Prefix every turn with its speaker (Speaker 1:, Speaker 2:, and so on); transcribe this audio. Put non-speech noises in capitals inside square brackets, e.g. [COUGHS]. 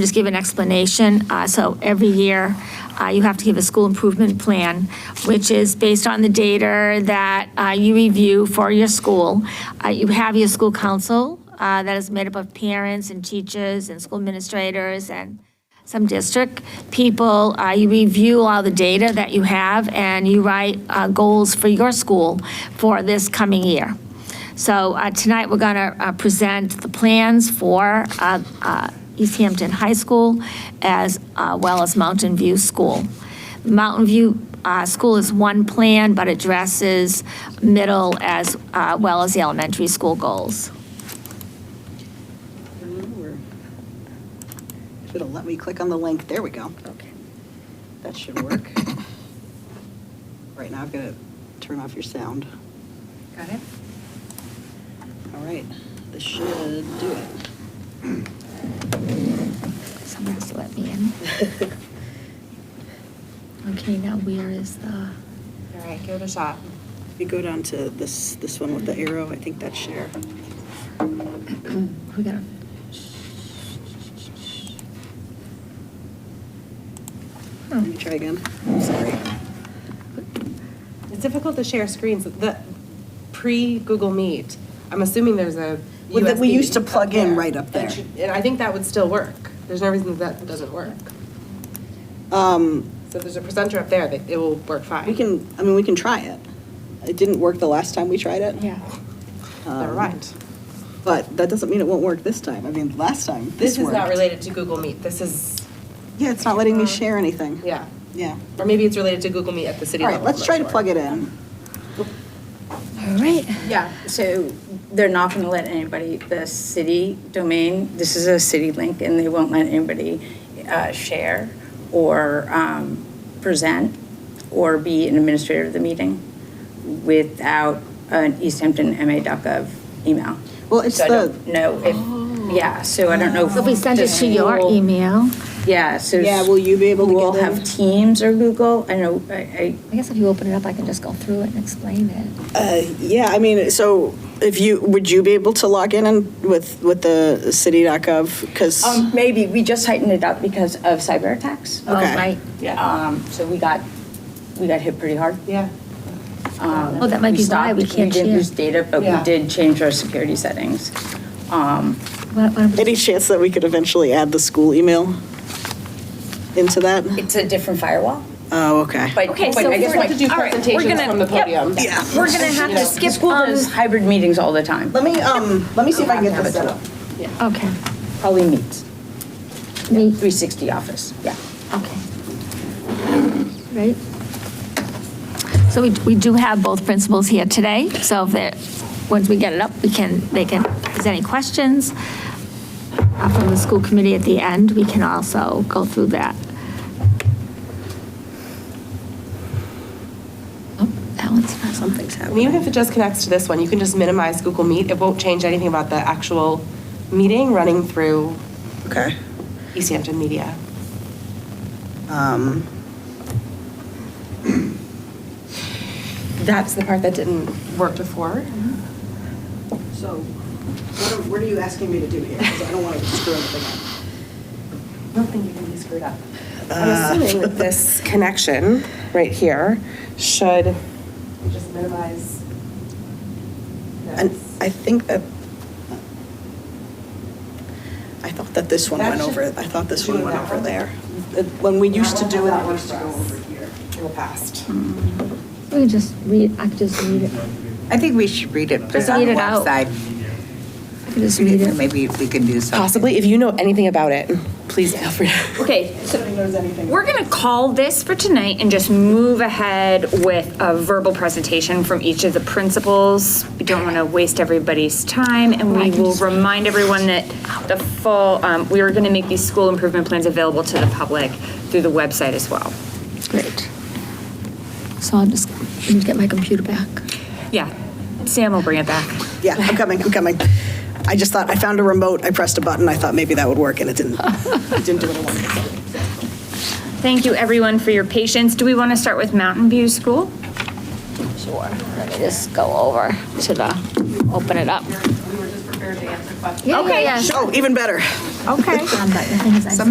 Speaker 1: just give an explanation. Uh, So every year, uh, you have to give a school improvement plan, which is based on the data that uh, you review for your school. Uh, You have your school council uh, that is made up of parents and teachers and school administrators and some district people, uh, you review all the data that you have, and you write uh, goals for your school for this coming year. So uh, tonight, we're going to present the plans for uh, uh, East Hampton High School as uh, well as Mountain View School. Mountain View uh, School is one plan, but addresses middle as uh, well as the elementary school goals.
Speaker 2: If it'll let me click on the link, there we go. Okay. That should work. [COUGHS] Right now, I've got to turn off your sound.
Speaker 3: Got it?
Speaker 2: All right, this should do it.
Speaker 1: Someone has to let me in. Okay, now where is the,
Speaker 3: All right, give it a shot.
Speaker 2: If you go down to this, this one with the arrow, I think that's share.
Speaker 3: Hmm.
Speaker 1: we gotta.
Speaker 2: Let me try again. I'm sorry.
Speaker 3: It's difficult to share screens. The pre-Google Meet, I'm assuming there's a
Speaker 2: Well, that we
Speaker 3: USB
Speaker 2: used to plug in
Speaker 3: there.
Speaker 2: right up there.
Speaker 3: And sh- And I think that would still work. There's no reason that that doesn't work.
Speaker 2: Um,
Speaker 3: So if there's a presenter up there, that it will work fine.
Speaker 2: We can, I mean, we can try it. It didn't work the last time we tried it.
Speaker 1: Yeah.
Speaker 2: um,
Speaker 3: They're right.
Speaker 2: But that doesn't mean it won't work this time. I mean, last time, this
Speaker 3: This is not
Speaker 2: worked.
Speaker 3: related to Google Meet. This is,
Speaker 2: Yeah, it's not letting me share anything.
Speaker 3: yeah.
Speaker 2: Yeah.
Speaker 3: Or maybe it's related to Google Meet at the city
Speaker 2: All
Speaker 3: level.
Speaker 2: right, let's try to plug it in.
Speaker 1: All right.
Speaker 4: Yeah, so they're not going to let anybody, the city domain, this is a city link, and they won't let anybody uh, share or um, present or be an administrator of the meeting without an East Hampton MA.gov email.
Speaker 2: Well, it's
Speaker 4: So I
Speaker 2: the-
Speaker 4: don't know if, yeah, so I don't know.
Speaker 1: So if we send it
Speaker 4: the
Speaker 1: to your
Speaker 4: school-
Speaker 1: email,
Speaker 4: Yeah, so.
Speaker 2: Yeah, will you be able to
Speaker 4: who all
Speaker 2: get in?
Speaker 4: have Teams or Google? I know, I, I
Speaker 1: I guess if you open it up, I can just go through it and explain it.
Speaker 2: Yeah, I mean, so if you, would you be able to log in and with, with the city.gov? Because,
Speaker 4: Um, maybe, we just tightened it up because of cyber attacks.
Speaker 1: Oh,
Speaker 2: Okay.
Speaker 1: right.
Speaker 4: Um, so we got, we got hit pretty hard.
Speaker 3: Yeah.
Speaker 4: Um,
Speaker 1: Oh, that might be why we can't
Speaker 4: stopped- We
Speaker 1: share.
Speaker 4: didn't lose data, but we
Speaker 3: Yeah.
Speaker 4: did change our security settings. Um,
Speaker 1: Why- why don't we-
Speaker 2: any chance that we could eventually add the school email into that?
Speaker 4: it's a different firewall,
Speaker 2: Oh, okay.
Speaker 4: but.
Speaker 1: Okay,
Speaker 4: but
Speaker 1: so
Speaker 4: I
Speaker 3: You
Speaker 4: guess
Speaker 3: still have
Speaker 4: like-
Speaker 3: to do
Speaker 1: All right, we're
Speaker 3: presentations
Speaker 1: gonna-
Speaker 3: from the
Speaker 1: yep.
Speaker 3: podium.
Speaker 2: Yeah.
Speaker 1: We're gonna have to
Speaker 4: The
Speaker 1: skip
Speaker 4: school
Speaker 1: on,
Speaker 4: does hybrid meetings all the time,
Speaker 2: Let me, um, let me see if I can get this set up.
Speaker 1: okay,
Speaker 4: probably meets,
Speaker 1: me,
Speaker 4: 360 office, yeah.
Speaker 1: okay. Right? So we, we do have both principals here today, so if they're, once we get it up, we can, they can, if there's any questions uh, from the school committee at the end, we can also go through that. Oh, That one's not something.
Speaker 3: And even if it just connects to this one, you can just minimize Google Meet. It won't change anything about the actual meeting running through E
Speaker 2: Okay.
Speaker 3: East Hampton Media.
Speaker 2: Um,
Speaker 3: That's the part that didn't work before.
Speaker 2: So what are, what are you asking me to do here? Because I don't want to screw anything
Speaker 3: I don't think you're going to be screwed up. I'm assuming that this connection right here should. Just minimize.
Speaker 2: up. And I think that, I thought that this one went over, I thought this one went over there. Uh, When we used to do it, it used to go over here.
Speaker 3: In the past.
Speaker 1: We can just read, I could just read it,
Speaker 5: I think we should read it, put
Speaker 1: Just
Speaker 5: it on
Speaker 1: read
Speaker 5: the
Speaker 1: it out.
Speaker 5: website.
Speaker 1: I could just read
Speaker 5: Read it,
Speaker 1: it.
Speaker 5: Maybe we can do something.
Speaker 3: Possibly, if you know anything about it, please feel free.
Speaker 6: Okay, so we're going to call this for tonight and just move ahead with a verbal presentation from each of the principals. We don't want to waste everybody's time, and we will remind everyone that the full, um, we are going to make these school improvement plans available to the public through the website as well.
Speaker 1: Great. So I'll just, I need to get my computer back.
Speaker 6: Yeah, Sam will bring it back.
Speaker 2: Yeah, I'm coming, I'm coming. I just thought, I found a remote, I pressed a button, I thought maybe that would work, and it didn't. It didn't do what I wanted.
Speaker 6: Thank you, everyone, for your patience. Do we want to start with Mountain View School?
Speaker 1: Sure. Let me just go over to the, open it up. We were just prepared to answer questions. Yeah, yeah, yeah.
Speaker 2: Oh, even better.
Speaker 1: [LAUGHS]
Speaker 6: Okay.
Speaker 1: Um, but the thing is, I